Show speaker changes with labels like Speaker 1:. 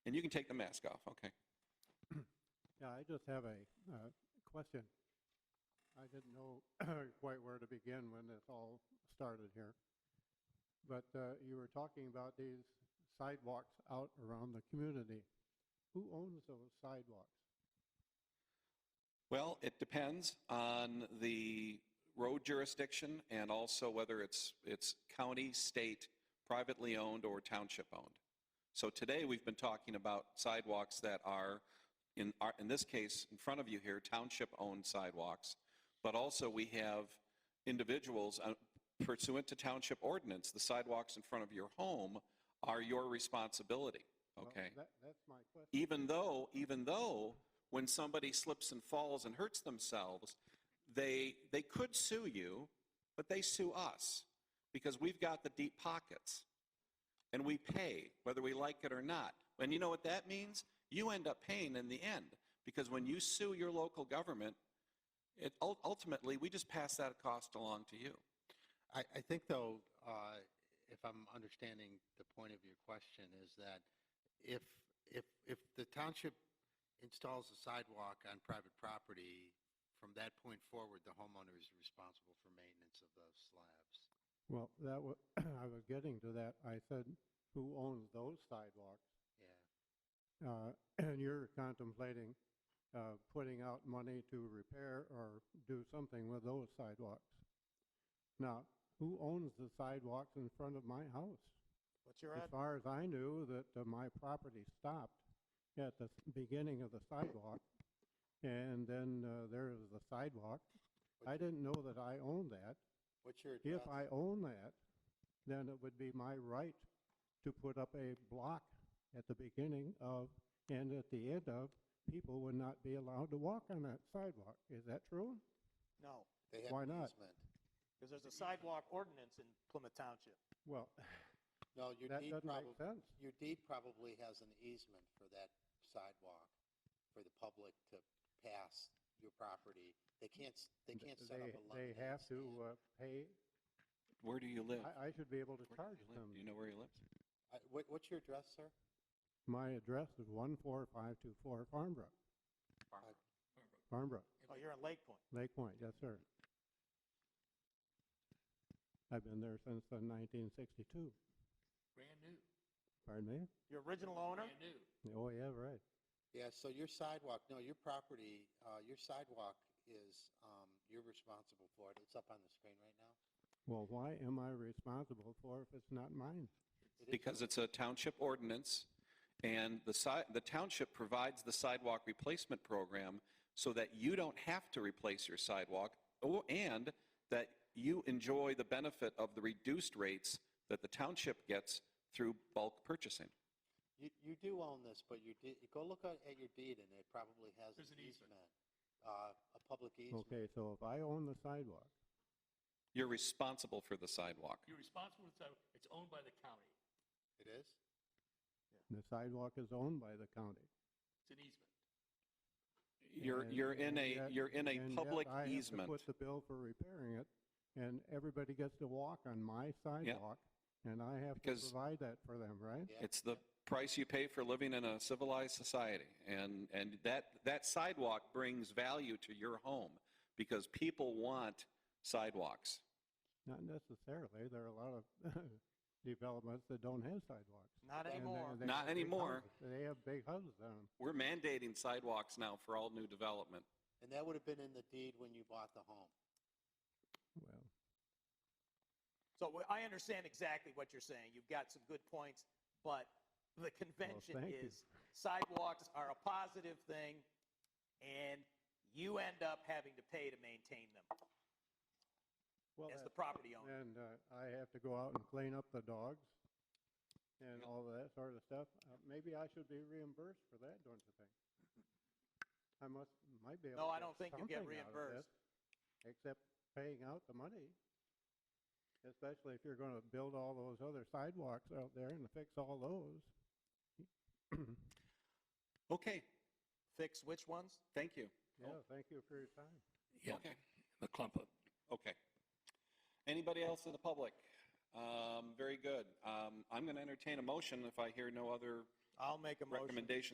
Speaker 1: And you can take the mask off, okay.
Speaker 2: Yeah, I just have a uh, question. I didn't know quite where to begin when this all started here. But uh, you were talking about these sidewalks out around the community. Who owns those sidewalks?
Speaker 1: Well, it depends on the road jurisdiction and also whether it's, it's county, state, privately owned, or township owned. So today, we've been talking about sidewalks that are, in, our- in this case, in front of you here, township-owned sidewalks. But also, we have individuals uh, pursuant to township ordinance, the sidewalks in front of your home are your responsibility,
Speaker 2: Well,
Speaker 1: okay?
Speaker 2: that- That's my question.
Speaker 1: even though, even though when somebody slips and falls and hurts themselves, they, they could sue you, but they sue us because we've got the deep pockets and we pay whether we like it or not. And you know what that means? You end up paying in the end because when you sue your local government, it, ul- ultimately, we just pass that cost along to you.
Speaker 3: I, I think though, uh, if I'm understanding the point of your question, is that if, if, if the township installs a sidewalk on private property, from that point forward, the homeowner is responsible for maintenance of those slabs.
Speaker 2: Well, that was, I was getting to that. I said, who owns those sidewalks?
Speaker 3: Yeah.
Speaker 2: Uh, And you're contemplating uh, putting out money to repair or do something with those sidewalks. Now, who owns the sidewalks in front of my house?
Speaker 4: What's your
Speaker 2: As
Speaker 4: address?
Speaker 2: far as I knew, that uh, my property stopped at the s- beginning of the sidewalk, and then uh, there is the sidewalk. I didn't know that I owned that.
Speaker 3: What's your
Speaker 2: If I own that, then it would be my right to put up a block at the beginning of and at the end of, people would not be allowed to walk on that sidewalk. Is that true?
Speaker 4: No,
Speaker 3: They
Speaker 2: why not?
Speaker 3: easement.
Speaker 4: because there's a sidewalk ordinance in Plymouth Township.
Speaker 2: Well,
Speaker 3: No, your
Speaker 2: that
Speaker 3: deed
Speaker 2: doesn't
Speaker 3: probably,
Speaker 2: make sense.
Speaker 3: your deed probably has an easement for that sidewalk, for the public to pass your property. They can't, s- they can't set
Speaker 2: They-
Speaker 3: up a
Speaker 2: They
Speaker 3: lemonade
Speaker 2: have to
Speaker 3: stand.
Speaker 2: uh, pay,
Speaker 1: Where do you live?
Speaker 2: I, I should be able to
Speaker 1: Where
Speaker 2: charge
Speaker 1: do you live?
Speaker 2: them.
Speaker 1: Do you know where he lives?
Speaker 3: Uh, What, what's your address, sir?
Speaker 2: My address is 14524 Farmbrook, Farmbrook,
Speaker 4: Oh, you're in Lake Point.
Speaker 2: Lake Point, yes, sir. I've been there since uh, 1962.
Speaker 5: Brand new.
Speaker 2: Pardon me?
Speaker 4: Your original owner?
Speaker 5: Brand new.
Speaker 2: Oh, yeah, right.
Speaker 3: Yeah, so your sidewalk, no, your property, uh, your sidewalk is, um, you're responsible for it. It's up on the screen right now.
Speaker 2: Well, why am I responsible for if it's not mine?
Speaker 3: It is-
Speaker 1: because it's a township ordinance, and the si, the township provides the sidewalk replacement program so that you don't have to replace your sidewalk, or- and that you enjoy the benefit of the reduced rates that the township gets through bulk purchasing.
Speaker 3: You, you do own this, but you did, go look at, at your deed and it probably has
Speaker 5: There's
Speaker 3: an
Speaker 5: an easement.
Speaker 3: easement, uh, a public easement.
Speaker 2: Okay, so if I own the sidewalk,
Speaker 1: You're responsible for the sidewalk.
Speaker 5: You're responsible for the sidewalk. It's owned by the county.
Speaker 3: It is?
Speaker 2: the sidewalk is owned by the county.
Speaker 5: It's an easement.
Speaker 1: You're,
Speaker 2: and-
Speaker 1: you're in
Speaker 2: and
Speaker 1: a,
Speaker 2: yet-
Speaker 1: you're in a
Speaker 2: and yet
Speaker 1: public
Speaker 2: I have to
Speaker 1: easement.
Speaker 2: put the bill for repairing it, and everybody gets to walk on my sidewalk, and I have to
Speaker 1: Because-
Speaker 2: provide that for them, right?
Speaker 3: Yeah.
Speaker 1: It's the price you pay for living in a civilized society. And, and that, that sidewalk brings value to your home because people want sidewalks.
Speaker 2: Not necessarily, there are a lot of developments that don't have sidewalks.
Speaker 4: Not
Speaker 2: and they-
Speaker 4: anymore.
Speaker 2: they
Speaker 1: Not
Speaker 2: have big
Speaker 1: anymore.
Speaker 2: houses. They have big houses on them.
Speaker 1: We're mandating sidewalks now for all new development.
Speaker 3: And that would have been in the deed when you bought the home.
Speaker 2: Well,
Speaker 4: So wh- I understand exactly what you're saying. You've got some good points, but the convention
Speaker 2: thank you.
Speaker 4: is sidewalks are a positive thing, and you end up having to pay to maintain them
Speaker 2: well,
Speaker 4: as
Speaker 2: that-
Speaker 4: the property owner.
Speaker 2: And uh, I have to go out and clean up the dogs and
Speaker 1: Yeah.
Speaker 2: all of that sort of stuff. Uh, Maybe I should be reimbursed for that, don't you think? I must, might be able to
Speaker 4: No, I
Speaker 2: get
Speaker 4: don't think you'll get
Speaker 2: something out of
Speaker 4: reimbursed.
Speaker 2: this, Except paying out the money. Especially if you're going to build all those other sidewalks out there and fix all those.
Speaker 1: Okay,
Speaker 4: Fix which ones?
Speaker 1: thank you.
Speaker 4: Oh.
Speaker 2: Yeah, thank you for your time.
Speaker 5: Yeah.
Speaker 1: Okay.
Speaker 5: The clump up.
Speaker 1: Okay. Anybody else in the public? Um, Very good. Um, I'm going to entertain a motion if I hear no other
Speaker 6: I'll make a motion.
Speaker 4: Recommendation